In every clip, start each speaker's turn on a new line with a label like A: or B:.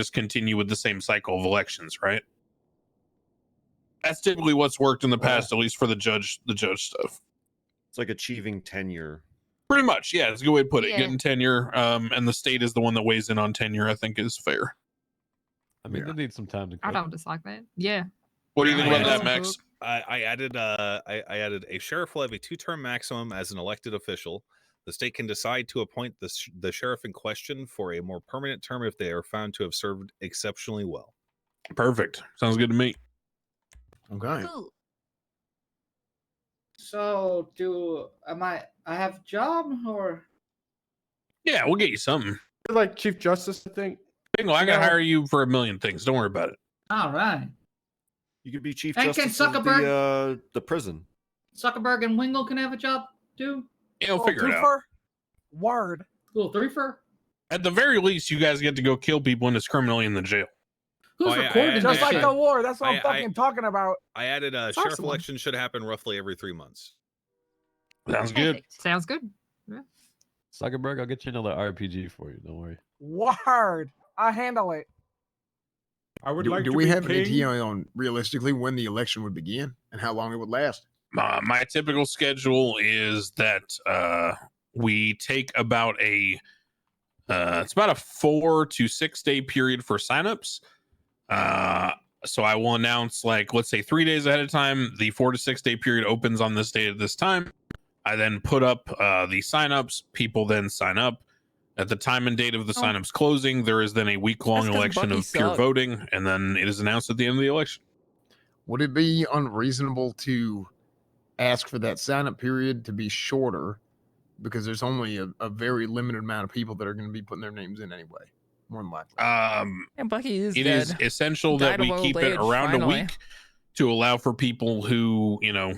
A: just continue with the same cycle of elections, right? That's typically what's worked in the past, at least for the judge, the judge stuff.
B: It's like achieving tenure.
A: Pretty much, yeah. It's a good way to put it.
C: Yeah.
A: Getting tenure, um, and the state is the one that weighs in on tenure. I think is fair.
D: I mean,
A: Yeah.
D: they need some time to.
C: I
D: cook.
C: don't dislike that. Yeah.
A: What do you think
E: Yeah,
A: about
E: yeah.
A: that, Max?
E: I, I added uh, I, I added a sheriff will have a two-term maximum as an elected official. The state can decide to appoint the, sh- the sheriff in question for a more permanent term if they are found to have served exceptionally well.
A: Perfect. Sounds good to me.
F: Okay.
C: Cool.
G: So do am I? I have job or
A: Yeah, we'll get you something.
F: You're like Chief Justice, I think.
A: Bingo, I
F: Yeah.
A: gotta hire you for a million things. Don't worry about it.
G: all right?
B: You could be chief
G: And can
B: justice of the, uh, the prison.
G: Zuckerberg and Wingle can have a job too.
A: Yeah, we'll
H: Little
A: figure it out.
H: twofer? Word.
G: Little threefer.
A: At the very least, you guys get to go kill people indiscriminately in the jail.
G: Who's
E: Oh, yeah, I-
G: recording
E: I-
G: this?
H: Just like
G: shit?
H: the war. That's what I,
E: I- I-
H: am fucking talking about.
E: I added uh,
C: That's
E: sheriff
C: awesome.
E: election should happen roughly every three months.
A: Sounds good.
C: Perfect. Sounds good.
D: Zuckerberg, I'll get you another RPG for you. Don't worry.
H: Word. I handle it.
I: I would
F: Do,
I: like
F: do
I: to
F: we
I: be
F: have any
I: king.
F: idea on realistically when the election would begin and how long it would last?
A: My, Uh, my typical schedule is that uh, we take about a uh, it's about a four to six day period for signups. Uh, so I will announce like let's say three days ahead of time. The four to six day period opens on this day at this time. I then put up uh, the signups. People then sign up. At the time and date of the
H: Oh.
A: signups closing, there is then a week long
H: That's 'cause
A: election
H: Bucky
A: of pure
H: sucked.
A: voting, and then it is announced at the end of the election.
F: Would it be unreasonable to ask for that sign up period to be shorter because there's only a, a very limited amount of people that are going to be putting their names in anyway? More than likely.
A: Um,
J: And Bucky is
A: it
J: dead.
A: is essential that
J: Died of
A: we
J: old
A: keep it
J: age,
A: around a
J: finally.
A: week to allow for people who you know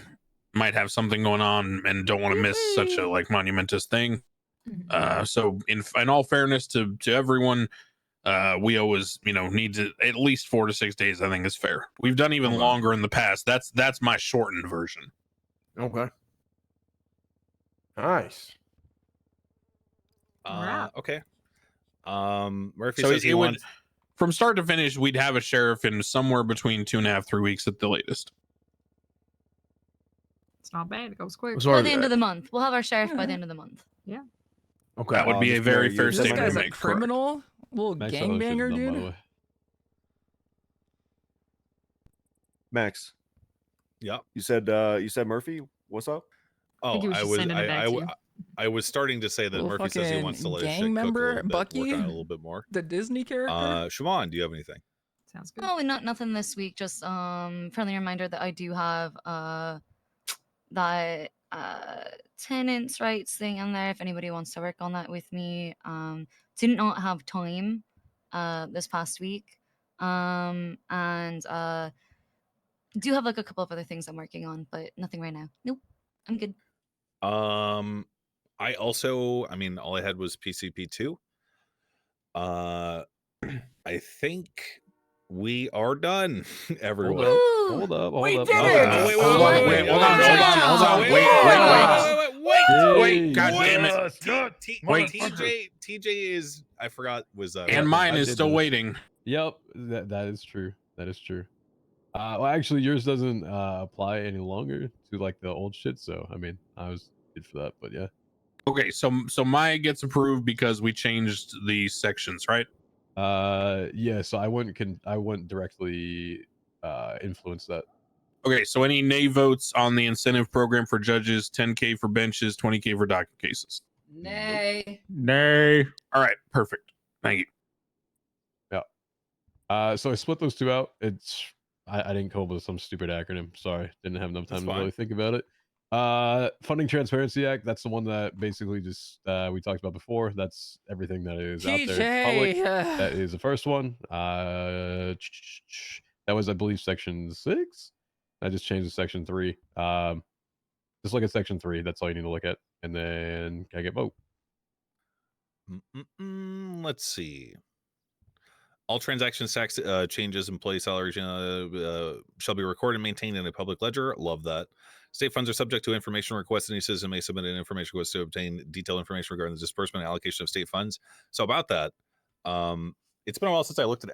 A: might have something going on and don't want to miss such
J: Mm-hmm.
A: a like monumentous thing
K: Mm-hmm.
A: uh so in in all fairness to to everyone uh we always you know need to at least four to six days i think is fair we've done even
F: Okay.
A: longer in the past that's that's my shortened version
F: Okay. Nice.
E: Uh,
C: Right.
E: Okay. Um, Murphy
A: so
E: says
A: it,
E: he
A: it would
E: wants-
A: from start to finish we'd have a sheriff in somewhere between two and a half three weeks at the latest
C: It's not bad. It goes quick.
F: Sorry.
K: by
F: uh,
K: the end of the month. We'll have our sheriff by the end of the month.
F: okay.
A: that would
B: Wow,
A: be a
B: just
A: very
B: barely
A: fair
B: used
J: this
B: State
A: statement
J: guy's
A: to
J: a
A: make correct.
J: criminal, little
D: Max, I thought it was just
J: gangbanger,
D: dumb, by the
J: dude.
D: way.
B: Max,
E: Yeah.
B: you said uh, you said Murphy. What's up?
E: Oh,
C: he was
E: I
C: just
E: was. I,
C: sending it back
E: I,
C: to
E: w-
C: you.
E: I was starting to say that
J: Little
E: Murphy says he wants to
J: fucking
E: let his shit
J: gang
E: cook a
J: member,
E: little bit, work on
J: Bucky.
E: it a little bit more.
J: The Disney character.
E: Uh, Shimon, do you have anything?
C: Sounds good.
K: No, not nothing this week. Just um friendly reminder that I do have uh that uh tenants rights thing in there if anybody wants to work on that with me. Um did not have time uh this past week. Um and uh do have like a couple of other things I'm working on, but nothing right now. Nope. I'm good.
E: Um, I also, I mean, all I had was PCP two. Uh, I think we are done,
A: Oh,
E: everyone.
D: up.
K: Woo!
D: Hold up. Hold
H: We
D: up.
H: did
D: hold
H: it!
D: up.
E: wait,
D: Uh, Hold up,
E: wait, wait,
D: wait,
E: wait,
D: hold on,
E: wait,
D: hold on, hold on,
E: wait, wait,
D: wait,
E: wait, wait, wait, wait,
D: wait,
A: wait,
D: Jeez.
A: God damn it.
E: T- T-
A: Wait.
E: TJ, TJ is I forgot was uh,
A: and
D: Yeah,
A: mine
D: I
A: is
D: did
A: still
D: do it.
A: waiting
D: Yep, that that is true. That is true. Uh, well, actually, yours doesn't uh, apply any longer to like the old shit. So, I mean, I was good for that. But yeah,
A: Okay, so so Maya gets approved because we changed the sections, right?
D: uh, yeah. So I wouldn't can I wouldn't directly uh, influence that.
A: Okay, so any nay votes on the incentive program for judges, 10k for benches, 20k for docket cases.
G: Nay.
I: Nay.
A: All right, perfect. Thank you.
D: Uh, so I split those two out. It's I, I didn't come up with some stupid acronym. Sorry, didn't have enough
E: That's
D: time to
E: fine.
D: really think about it. Uh, Funding Transparency Act. That's the one that basically just uh, we talked about before. That's everything that is out there. in public.
J: TJ. uh,
D: That is the first one. Uh, ch- ch- ch- that was, I believe, section six. I just changed to section three. Um, just look at section three. That's all you need to look at. And then can I get vote?
E: Mm-mm-mm, mm, let's see. All transaction tax uh, changes, employee salaries uh, uh, shall be recorded and maintained in a public ledger. Love that. State funds are subject to information requests. Any citizen may submit an information request to obtain detailed information regarding the disbursement and allocation of state funds. So about that, um, it's been a while since I looked at